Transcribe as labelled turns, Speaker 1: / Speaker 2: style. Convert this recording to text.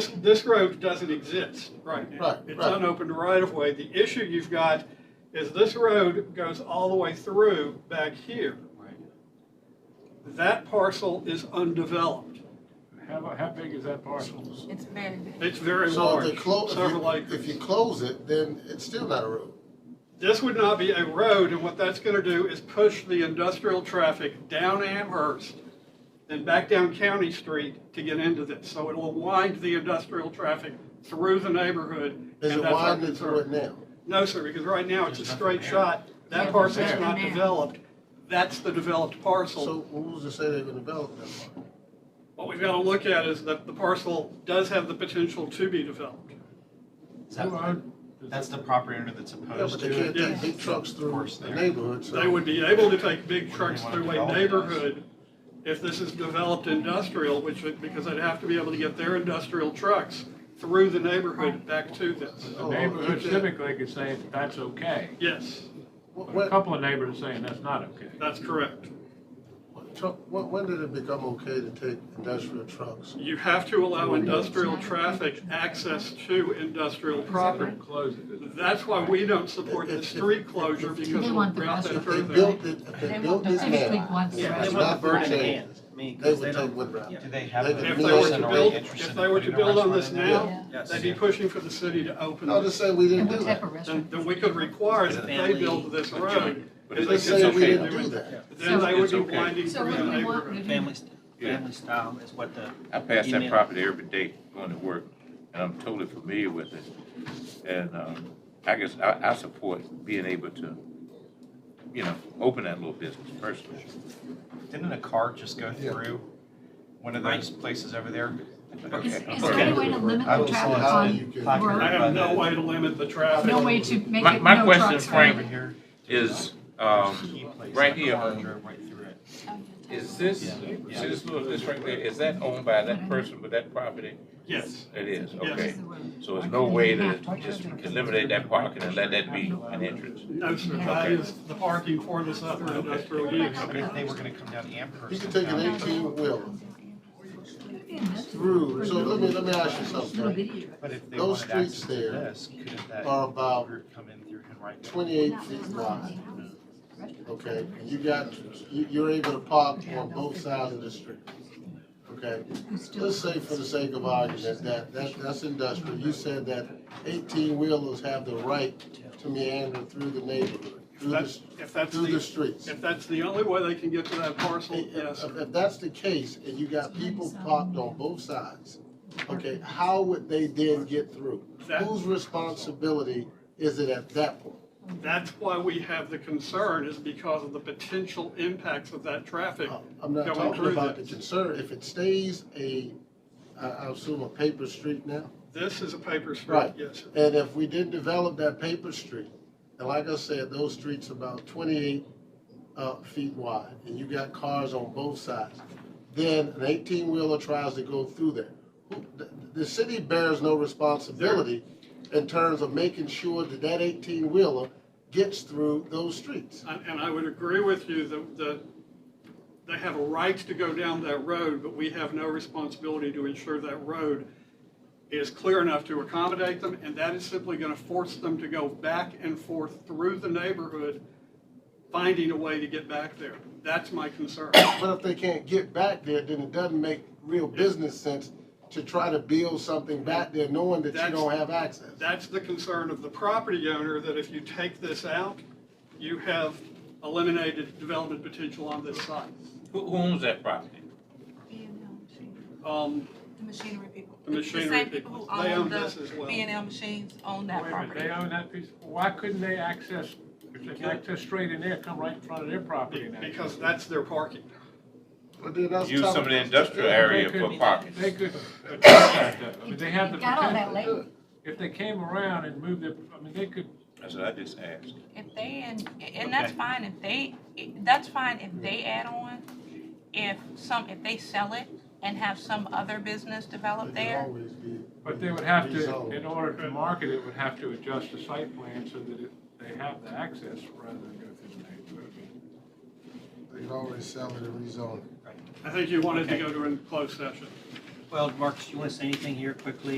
Speaker 1: This, this road doesn't exist right now.
Speaker 2: Right,
Speaker 1: It's
Speaker 2: right.
Speaker 1: unopened right of way. The issue you've got is this road goes all the way through back here. That parcel is undeveloped.
Speaker 3: How, how big is that parcel?
Speaker 1: Oh,
Speaker 4: It's very big.
Speaker 1: It's very
Speaker 2: So if they
Speaker 1: large,
Speaker 2: close,
Speaker 1: several
Speaker 2: if you
Speaker 1: acres.
Speaker 2: close it, then it's still not a road.
Speaker 1: This would not be a road, and what that's gonna do is push the industrial traffic down Amherst and back down County Street to get into this. So it will wind the industrial traffic through the neighborhood.
Speaker 2: Is
Speaker 1: and
Speaker 2: it
Speaker 1: that's our
Speaker 2: widened through it
Speaker 1: concern.
Speaker 2: now?
Speaker 1: No, sir, because right now it's a
Speaker 3: There's
Speaker 1: straight
Speaker 3: nothing there.
Speaker 1: shot. That
Speaker 4: Yeah,
Speaker 1: parcel's
Speaker 4: there's
Speaker 1: not
Speaker 4: nothing there.
Speaker 1: developed. That's the developed
Speaker 2: So
Speaker 1: parcel.
Speaker 2: who's to say they're gonna develop that part?
Speaker 1: What we've got to look at is that the parcel does have the potential to be developed.
Speaker 5: Is that-
Speaker 3: Who are-
Speaker 5: That's the property owner that's
Speaker 2: Yeah,
Speaker 5: opposed
Speaker 2: but they
Speaker 5: to
Speaker 2: can't
Speaker 5: it.
Speaker 2: take big trucks through
Speaker 5: Force
Speaker 2: the
Speaker 5: there.
Speaker 2: neighborhood, so.
Speaker 1: They would be able to take big
Speaker 5: What do
Speaker 1: trucks
Speaker 5: they want to
Speaker 1: through a
Speaker 5: develop as?
Speaker 1: neighborhood if this is developed industrial, which, would- because they'd have to be able to get their industrial trucks through the neighborhood back to this.
Speaker 3: The neighborhood typically could say that's okay.
Speaker 1: Yes,
Speaker 2: Wh-
Speaker 3: But a
Speaker 2: When,
Speaker 3: couple of neighbors are saying that's not okay.
Speaker 1: that's correct.
Speaker 2: wh- truck- when, when did it become okay to take industrial trucks?
Speaker 1: You have to allow industrial traffic access to industrial property.
Speaker 3: Close it.
Speaker 1: That's why we don't support the street closure because
Speaker 4: They
Speaker 1: we
Speaker 4: want
Speaker 1: route
Speaker 4: the
Speaker 1: that
Speaker 2: If
Speaker 1: through
Speaker 2: they
Speaker 1: there.
Speaker 2: built it, if
Speaker 4: They
Speaker 2: they
Speaker 4: want
Speaker 2: built
Speaker 4: the
Speaker 2: this
Speaker 4: district
Speaker 2: man,
Speaker 4: wants
Speaker 2: it's
Speaker 4: Yeah,
Speaker 6: Yeah,
Speaker 4: they
Speaker 6: they
Speaker 2: not
Speaker 6: want the
Speaker 2: for
Speaker 6: burning
Speaker 2: change.
Speaker 6: hands. I mean,
Speaker 2: They
Speaker 6: 'cause
Speaker 2: would
Speaker 6: don't-
Speaker 2: take wood route.
Speaker 6: yeah.
Speaker 5: Do they have?
Speaker 2: They
Speaker 5: the
Speaker 2: could-
Speaker 1: If
Speaker 2: New
Speaker 1: they were to
Speaker 2: York's
Speaker 5: person
Speaker 2: not
Speaker 1: build,
Speaker 5: already interested
Speaker 1: if
Speaker 5: in
Speaker 1: they were to
Speaker 5: putting a
Speaker 1: build on this
Speaker 5: restaurant in there?
Speaker 1: now,
Speaker 5: Yes.
Speaker 1: they'd be pushing for the city to open
Speaker 2: I'll just
Speaker 1: it.
Speaker 2: say we
Speaker 4: And
Speaker 2: didn't
Speaker 4: what
Speaker 2: do
Speaker 4: type
Speaker 2: that.
Speaker 4: of
Speaker 1: Then,
Speaker 4: restaurant?
Speaker 1: then we could require that they
Speaker 6: Family,
Speaker 1: build this
Speaker 6: a
Speaker 1: road.
Speaker 6: joint.
Speaker 7: But
Speaker 1: If
Speaker 7: it's
Speaker 1: they
Speaker 2: Let's say
Speaker 1: said
Speaker 2: we
Speaker 1: they
Speaker 2: didn't
Speaker 1: couldn't
Speaker 2: do
Speaker 1: do
Speaker 2: that.
Speaker 1: it, Then they would
Speaker 7: It's
Speaker 1: be
Speaker 7: okay.
Speaker 1: winding
Speaker 4: So
Speaker 1: through
Speaker 4: what
Speaker 1: the
Speaker 4: do we want
Speaker 1: neighborhood.
Speaker 4: to do?
Speaker 6: Family, st-
Speaker 7: Yeah.
Speaker 6: family style is what the.
Speaker 7: I pass that
Speaker 6: email-
Speaker 7: property every day going to work, and I'm totally familiar with it. And um, I guess I, I support being able to, you know, open that little business personally.
Speaker 5: Didn't a car just go through one of
Speaker 6: Right.
Speaker 5: those places over there?
Speaker 7: Okay.
Speaker 4: Is is there any way to limit
Speaker 5: I
Speaker 4: the
Speaker 5: was
Speaker 4: traffic
Speaker 5: lost
Speaker 2: you
Speaker 4: on
Speaker 2: could-
Speaker 1: I
Speaker 4: Road?
Speaker 1: have no way to limit the traffic.
Speaker 4: No way to make
Speaker 7: My-
Speaker 4: it
Speaker 7: my
Speaker 4: no
Speaker 7: question,
Speaker 4: trucks
Speaker 7: Frank,
Speaker 4: running?
Speaker 5: here.
Speaker 7: Is, um, right here, is this, see this little, this right there, is that owned by that person with that property?
Speaker 1: Yes,
Speaker 7: It is,
Speaker 1: Yes.
Speaker 7: okay. So there's no way to just eliminate that parking and let that be an entrance?
Speaker 1: no, sir, that
Speaker 7: Okay.
Speaker 1: is the parking for this other industrial use.
Speaker 5: If they were gonna come down Amherst.
Speaker 2: You could take an
Speaker 5: and down-
Speaker 2: eighteen wheeler through, so let me, let me ask you something.
Speaker 5: But if they
Speaker 2: Those
Speaker 5: wanted access
Speaker 2: streets
Speaker 5: to
Speaker 2: there
Speaker 5: this, couldn't that
Speaker 2: Are about
Speaker 5: group come in through Henrico?
Speaker 2: twenty-eight feet wide, okay? And You got, you, you're able to park on both sides of the street, okay? Let's say for the sake of argument, that, that, that's industrial, you said that eighteen-wheelers have the right to meander through the neighborhood, through the,
Speaker 1: That's, if that's
Speaker 2: through the
Speaker 1: the,
Speaker 2: streets. uh,
Speaker 1: if that's the only way they can get to that parcel, yes,
Speaker 2: If,
Speaker 1: sir.
Speaker 2: if- if that's the case, and you got people parked on both sides, okay, how would they then get through?
Speaker 1: That-
Speaker 2: Whose responsibility is it at that point?
Speaker 1: That's why we have the concern is because of the potential impacts of that traffic.
Speaker 2: I'm not
Speaker 1: going
Speaker 2: talking
Speaker 1: through
Speaker 2: about the
Speaker 1: this.
Speaker 2: concern, if it stays a, I, I assume a paper street now?
Speaker 1: This is a paper street,
Speaker 2: Right.
Speaker 1: yes, sir.
Speaker 2: And if we didn't develop that paper street, and like I said, those streets about twenty-eight, uh, feet wide, and you got cars on both sides, then an eighteen-wheeler tries to go through there. Who- The, the city bears no responsibility in terms of making sure that that eighteen-wheeler gets through those streets.
Speaker 1: And and I would agree with you that, that they have a right to go down that road, but we have no responsibility to ensure that road is clear enough to accommodate them, and that is simply going to force them to go back and forth through the neighborhood, finding a way to get back there. That's my concern.
Speaker 2: But if they can't get back there, then it doesn't make real business sense to try to build something back there knowing that you
Speaker 1: That's-
Speaker 2: don't have access.
Speaker 1: That's the concern of the property owner, that if you take this out, you have eliminated development potential on this site.
Speaker 7: Who who owns that property?
Speaker 1: Um,
Speaker 8: The machinery people.
Speaker 1: The machinery
Speaker 8: same
Speaker 1: people.
Speaker 8: who
Speaker 1: They own
Speaker 8: own
Speaker 1: this as well.
Speaker 8: the B and L machines own that
Speaker 3: Wait a minute,
Speaker 8: property.
Speaker 3: they own that piece, why couldn't they access, if they access straight in there, come right in front of their property now?
Speaker 1: because that's their parking.
Speaker 2: But then that's
Speaker 7: Use
Speaker 2: tough.
Speaker 7: some of the industrial area for parking.
Speaker 3: They could address that though, I mean, they have the
Speaker 4: You got all that
Speaker 3: potential.
Speaker 4: later.
Speaker 3: If they came around and moved their, I mean, they could,
Speaker 7: That's what I just asked.
Speaker 8: If they, and, and that's fine if they, that's fine if they add on. If some, if they sell it and have some other business develop
Speaker 2: It'd
Speaker 8: there.
Speaker 2: always be-
Speaker 3: but they would have to,
Speaker 2: Rezone.
Speaker 3: in order to market it, would have to adjust the site plan so that it, they have the access rather than go through the neighborhood.
Speaker 2: They'd always sell it and rezone it.
Speaker 1: I think you wanted to go to a closed session.
Speaker 6: Well, Marcus, you want to say anything here quickly